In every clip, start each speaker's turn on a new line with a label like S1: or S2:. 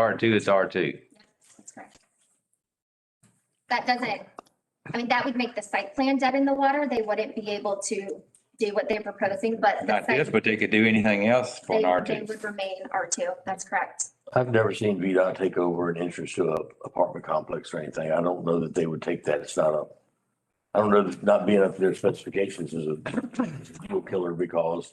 S1: R two is R two.
S2: That's correct. That doesn't, I mean, that would make the site plan dead in the water. They wouldn't be able to do what they're proposing, but. the
S1: Not this,
S2: site-
S1: but they could do anything else for an
S2: They
S1: R
S2: they
S1: two.
S2: would remain R2. That's correct.
S3: I've never seen VDOT take over an entrance to a apartment complex or anything. I don't know that they would take that. It's not a, I don't know that not being up to their specifications is a real killer because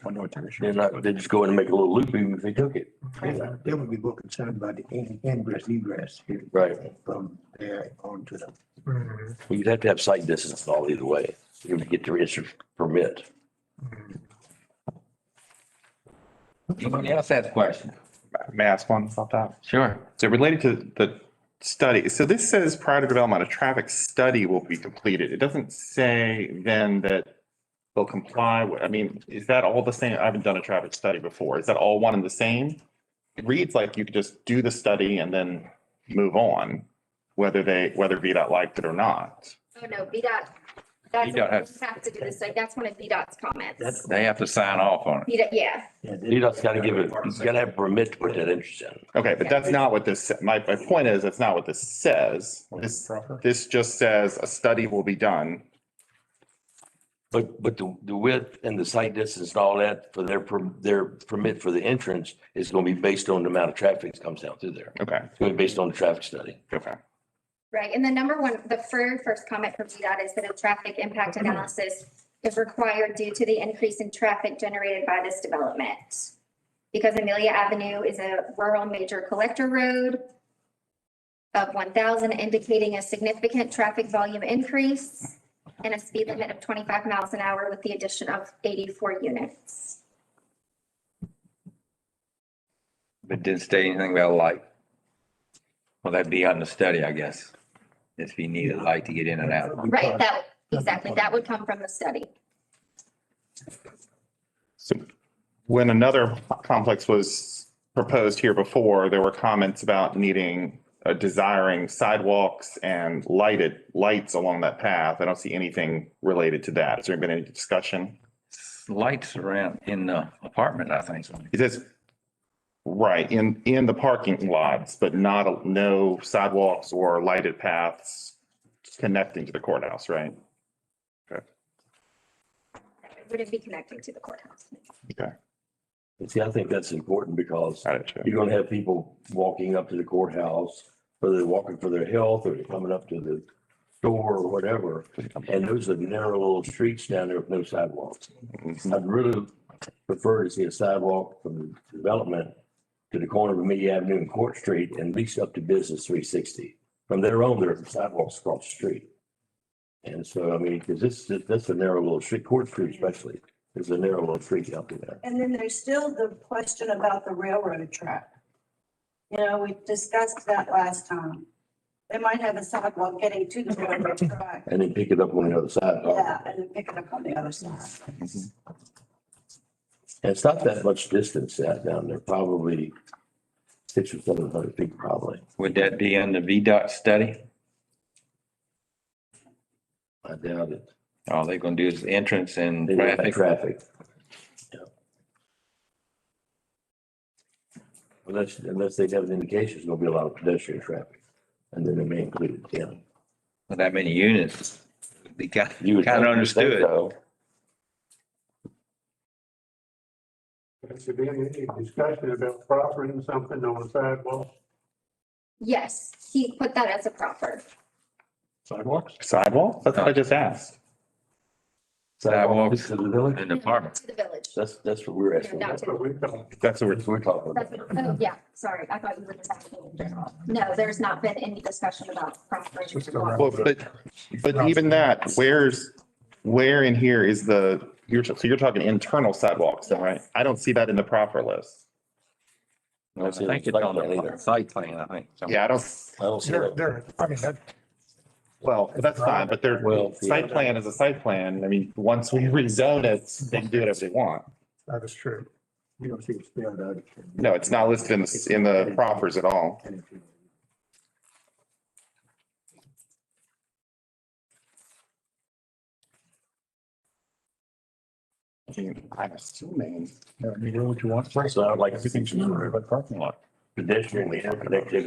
S3: they're not, they're just going to make a little loop even if they took it.
S4: They would be more concerned about the in- ingress, egress here
S3: Right.
S4: from there on to the.
S3: Well, You'd have to have site distance and all either way. You would get the issue permit. Mm-hmm.
S1: Anybody else has a question?
S5: May I ask one about that?
S1: Sure.
S5: So related to the study, so this says prior to development, a traffic study will be completed. It doesn't say then that they'll comply with, I mean, is that all the same? I haven't done a traffic study before. Is that all one and the same? It reads like you could just do the study and then move on, whether they, whether VDOT liked it or not.
S2: Oh, no, VDOT, that's,
S1: VDOT has-
S2: you have to do this. Like, that's one of VDOT's comments.
S1: They have to sign off on it.
S2: VDOT, yeah.
S3: VDOT's got to give it, you got to have permit to put that entrance in.
S5: Okay, but that's not what this, my, my point is, that's not what this says. This, this just says a study will be done.
S3: But, but the, the width and the site distance and all that for their, per- their permit for the entrance is going to be based on the amount of traffic that comes down through there.
S5: Okay,
S3: It's going to be based on the traffic study.
S5: okay.
S2: Right, and the number one, the very first comment from VDOT is that a traffic impact analysis is required due to the increase in traffic generated by this development. Because Amelia Avenue is a rural major collector road of one thousand indicating a significant traffic volume increase and a speed limit of twenty-five miles an hour with the addition of eighty-four units.
S1: But didn't say anything about light. Well, that'd be on the study, I guess. If you needed light to get in and out.
S2: Right, that, exactly, that would come from the study.
S5: So when another complex was proposed here before, there were comments about needing, uh, desiring sidewalks and lighted lights along that path. I don't see anything related to that. Has there been any discussion?
S1: Lights around in the apartment, I think.
S5: It says, right, in, in the parking lots, but not, no sidewalks or lighted paths connecting to the courthouse, right?
S2: Wouldn't be connecting to the courthouse.
S3: And see, I think that's important because
S5: Got it,
S3: you're going to have people walking up to the courthouse, whether they're walking for their health or they're coming up to the store or whatever. And those are narrow little streets down there with no sidewalks.
S5: too.
S3: I'd really prefer to see a sidewalk from the development to the corner of Amelia Avenue and Court Street and at least up to Business three sixty. From there on, there are sidewalks across the street. And so, I mean, because this, that's a narrow little street, Court Street especially, is a narrow little street out there.
S6: And then there's still the question about the railroad track. You know, we discussed that last time. They might have a sidewalk getting to the railroad track.
S3: And then pick it up on the other side.
S6: Yeah, and then pick it up on the other side.
S3: And it's not that much distance out down there, probably six or seven hundred feet probably.
S1: Would that be in the VDOT study?
S3: I doubt it.
S1: All they're gonna do is entrance and
S3: They don't
S1: traffic.
S3: have Traffic. Yeah. Unless, unless they have an indication, there's gonna be a lot of pedestrian traffic, and then they may include it, yeah.
S1: With that many units. Be kind,
S3: You would
S1: kind of
S3: think so.
S1: understood.
S7: Has there been any discussion about proffering something on the sidewalk?
S2: Yes, he put that as a proffer.
S7: Sidewalks?
S5: Sidewalk? That's what I just asked.
S1: Sidewalks.
S3: To the village,
S1: In the apartment.
S2: To the village.
S3: that's, that's what we're asking,
S2: No,
S3: that's
S2: to
S7: But we don't.
S5: That's what we're.
S3: what we're talking
S2: That's
S3: about.
S2: what- Oh, yeah, sorry, I thought you were just asking in general. No, there's not been any discussion about property.
S5: Well, but, but even that, where's, where in here is the, you're, so you're talking internal sidewalks, then, right? I don't see that in the proper list.
S1: I think it's on the site plan, I think.
S5: Yeah, I don't,
S3: I don't see that.
S4: I mean, that,
S5: well, that's fine, but they're,
S3: Well,
S5: site plan is a site plan. I mean, once we rezone it, they can do whatever they want.
S4: that is true. You don't see it spelled out.
S5: No, it's not listed in, the in the proffers at all. I mean, I'm assuming.
S3: So I'd like,
S5: Everything should be about parking lot.
S3: pedestrian connectivity